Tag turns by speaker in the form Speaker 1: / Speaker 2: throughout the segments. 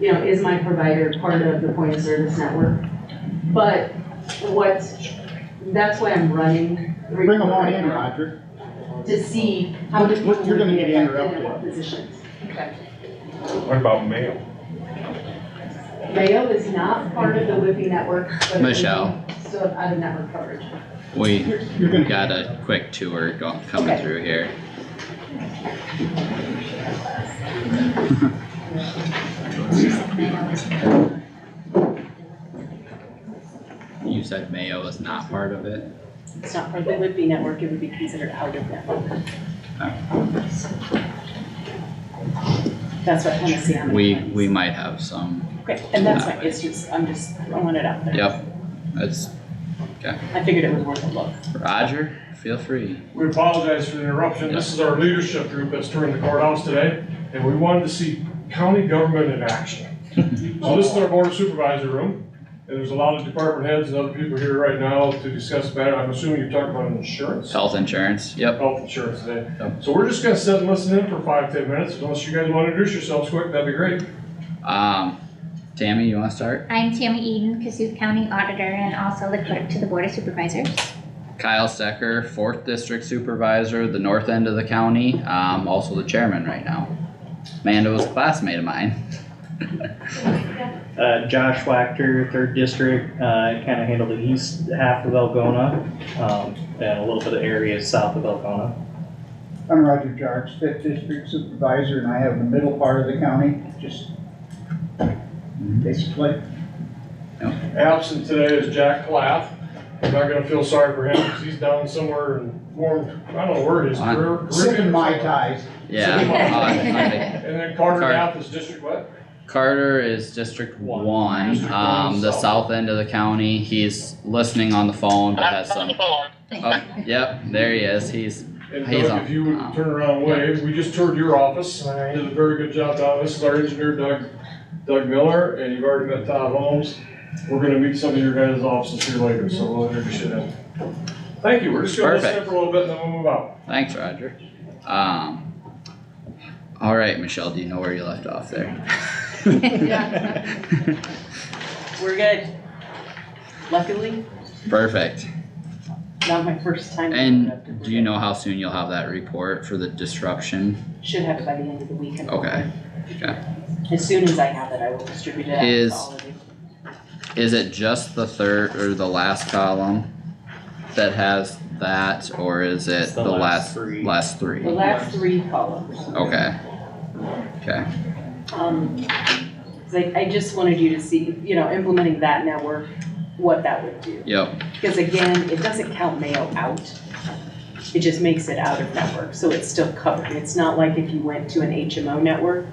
Speaker 1: you know, is my provider part of the point of service network? But what, that's why I'm running.
Speaker 2: Bring them on in, Roger.
Speaker 1: To see how many
Speaker 2: What-
Speaker 1: people
Speaker 2: what- you're
Speaker 1: would
Speaker 2: gonna
Speaker 1: be
Speaker 2: get
Speaker 1: affected in
Speaker 2: interrupted.
Speaker 1: what positions.
Speaker 3: What about mail?
Speaker 1: Mayo is not part of the WIPI network, but.
Speaker 4: Michelle.
Speaker 1: Still out of network coverage.
Speaker 4: We
Speaker 2: You're you're gonna.
Speaker 4: got a quick tour go- coming
Speaker 1: Okay.
Speaker 4: through here. You said Mayo was not part of it?
Speaker 1: It's not part of the WIPI network, it would be considered out of network. That's what Hennessy. I'm-
Speaker 4: We, we might have some,
Speaker 1: Okay, and that's fine, it's just, I'm just throwing it out there.
Speaker 4: yep. That's
Speaker 1: I figured it was worth a look.
Speaker 4: Roger, feel free.
Speaker 5: We apologize for the interruption. This is our leadership group that's touring the courthouse today, and we wanted to see county government in action. So this is our board supervisor room, and there's a lot of department heads and other people here right now to discuss that. I'm assuming you're talking about insurance,
Speaker 4: Health insurance, yep.
Speaker 5: health insurance today.
Speaker 4: Yep.
Speaker 5: So we're just gonna sit and listen in for five, ten minutes. Unless you guys wanna introduce yourselves quick, that'd be great.
Speaker 4: Um, Tammy, you wanna start?
Speaker 6: I'm Tammy Eden, Cassuth County Auditor and also the clerk to the Board of Supervisors.
Speaker 4: Kyle Stecker, fourth district supervisor, the north end of the county, um, also the chairman right now. Amanda was a classmate of mine.
Speaker 7: Uh, Josh Wachter, third district, uh, kind of handle the east half of Elgona, um, and a little bit of areas south of Elgona.
Speaker 2: I'm Roger Jarks, fifth district supervisor, and I have the middle part of the county, just basically.
Speaker 5: Absent today is Jack Plath. I'm not gonna feel sorry for him, because he's down somewhere in warm, I don't know where it is,
Speaker 4: On-
Speaker 5: Carib-
Speaker 2: Sipping
Speaker 5: Caribbean.
Speaker 2: Mai Tais.
Speaker 4: Yeah. uh, on- on the-
Speaker 5: And then Carter
Speaker 4: Sorry.
Speaker 5: Knapp is district what?
Speaker 4: Carter is District
Speaker 7: One.
Speaker 4: One,
Speaker 5: District
Speaker 4: um,
Speaker 5: one,
Speaker 4: the
Speaker 5: south.
Speaker 4: south end of the county. He's listening on the phone, but has some. Oh, yep, there he is. He's,
Speaker 5: And
Speaker 4: He's on-
Speaker 5: Doug, if you
Speaker 4: um,
Speaker 5: would turn around and wave, we just toured your office, did a very good job down, this is our engineer Doug, Doug Miller, and you've already met Todd Holmes. We're gonna meet some of your guys' offices here later, so we'll introduce you then. Thank you, we're just gonna listen
Speaker 4: Perfect.
Speaker 5: for a little bit and then we'll move out.
Speaker 4: thanks, Roger. Um, all right, Michelle, do you know where you left off there?
Speaker 1: We're good. Luckily,
Speaker 4: Perfect.
Speaker 1: not my first time.
Speaker 4: And do you know how soon you'll have that report for the disruption?
Speaker 1: Should have it by the end of the week.
Speaker 4: Okay.
Speaker 1: As soon as I have it, I will distribute it out to
Speaker 4: Is-
Speaker 1: all of you.
Speaker 4: Is it just the third or the last column that has that, or is
Speaker 7: It's
Speaker 4: it the last,
Speaker 7: three.
Speaker 4: last three?
Speaker 1: The last three columns.
Speaker 4: Okay. Okay,
Speaker 1: Um, like, I just wanted you to see, you know, implementing that network, what that would do.
Speaker 4: yep,
Speaker 1: Because again, it doesn't count mail out. It just makes it out of network, so it's still covered. It's not like if you went to an HMO network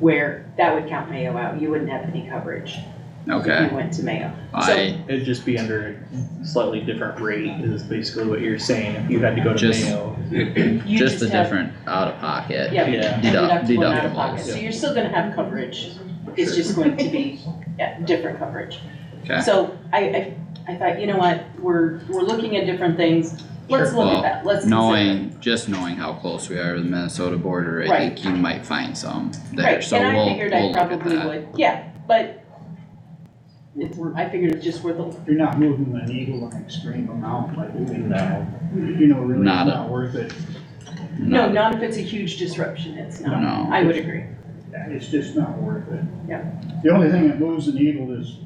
Speaker 1: where that would count mail out, you wouldn't have any coverage if
Speaker 4: okay.
Speaker 1: you went to mail.
Speaker 4: I,
Speaker 7: It'd just be under a slightly different rate is basically what you're saying, if you had to go to
Speaker 4: Just-
Speaker 7: Mayo.
Speaker 1: You
Speaker 4: just the
Speaker 1: have-
Speaker 4: different out of pocket.
Speaker 1: Yeah.
Speaker 7: Yeah,
Speaker 4: Deduct-
Speaker 1: Deductible and out of
Speaker 4: Deductibles,
Speaker 1: pocket, so you're still gonna have coverage. It's just going to be, yeah, different coverage.
Speaker 4: Okay.
Speaker 1: So I, I, I thought, you know what, we're, we're looking at different things. Let's look
Speaker 4: Well,
Speaker 1: at that, let's. consider it.
Speaker 4: knowing, just knowing how close we are to the Minnesota border, I
Speaker 1: Right.
Speaker 4: think you might find some there,
Speaker 1: Right,
Speaker 4: so
Speaker 1: and I
Speaker 4: we'll,
Speaker 1: figured
Speaker 4: we'll
Speaker 1: I
Speaker 4: look at
Speaker 1: probably
Speaker 4: that.
Speaker 1: would, yeah, but it's, wor- I figured it's just worth a,
Speaker 2: You're not moving the needle an extreme amount, like,
Speaker 7: no,
Speaker 2: you know, really, it's
Speaker 4: Not a-
Speaker 2: not worth it.
Speaker 1: no, not if it's a huge disruption, it's not.
Speaker 4: No,
Speaker 1: I would agree.
Speaker 2: It's just not worth it.
Speaker 1: Yeah.
Speaker 2: The only thing that moves the needle is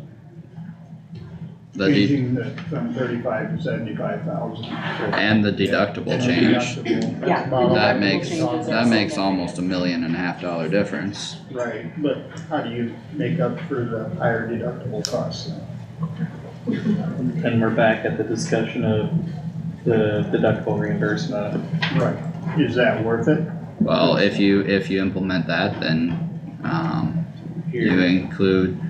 Speaker 4: the, de-
Speaker 2: changing the, from thirty-five to seventy-five thousand.
Speaker 4: and the deductible change,
Speaker 1: Yeah,
Speaker 4: that
Speaker 1: Deductible
Speaker 4: makes,
Speaker 1: changes are
Speaker 4: that makes
Speaker 1: significant.
Speaker 4: almost a million and a half dollar difference.
Speaker 2: Right, but how do you make up for the higher deductible costs? then?
Speaker 7: and we're back at the discussion of the deductible reimbursement.
Speaker 2: Right, is that worth it?
Speaker 4: Well, if you, if you implement that, then, um, you
Speaker 7: Here,
Speaker 4: include,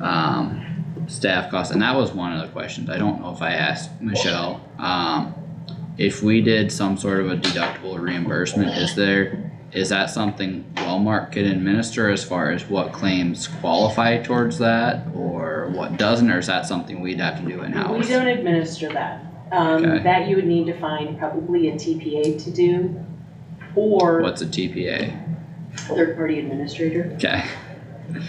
Speaker 4: um, staff costs, and that was one of the questions, I don't know if I asked Michelle, um, if we did some sort of a deductible reimbursement, is there, is that something Walmart could administer as far as what claims qualify towards that, or what doesn't, or is that something we'd have to do
Speaker 1: We
Speaker 4: in-house?
Speaker 1: don't administer that. Um,
Speaker 4: Okay.
Speaker 1: that you would need to find probably a TPA to do, or
Speaker 4: What's a TPA?
Speaker 1: third-party administrator.
Speaker 4: Okay,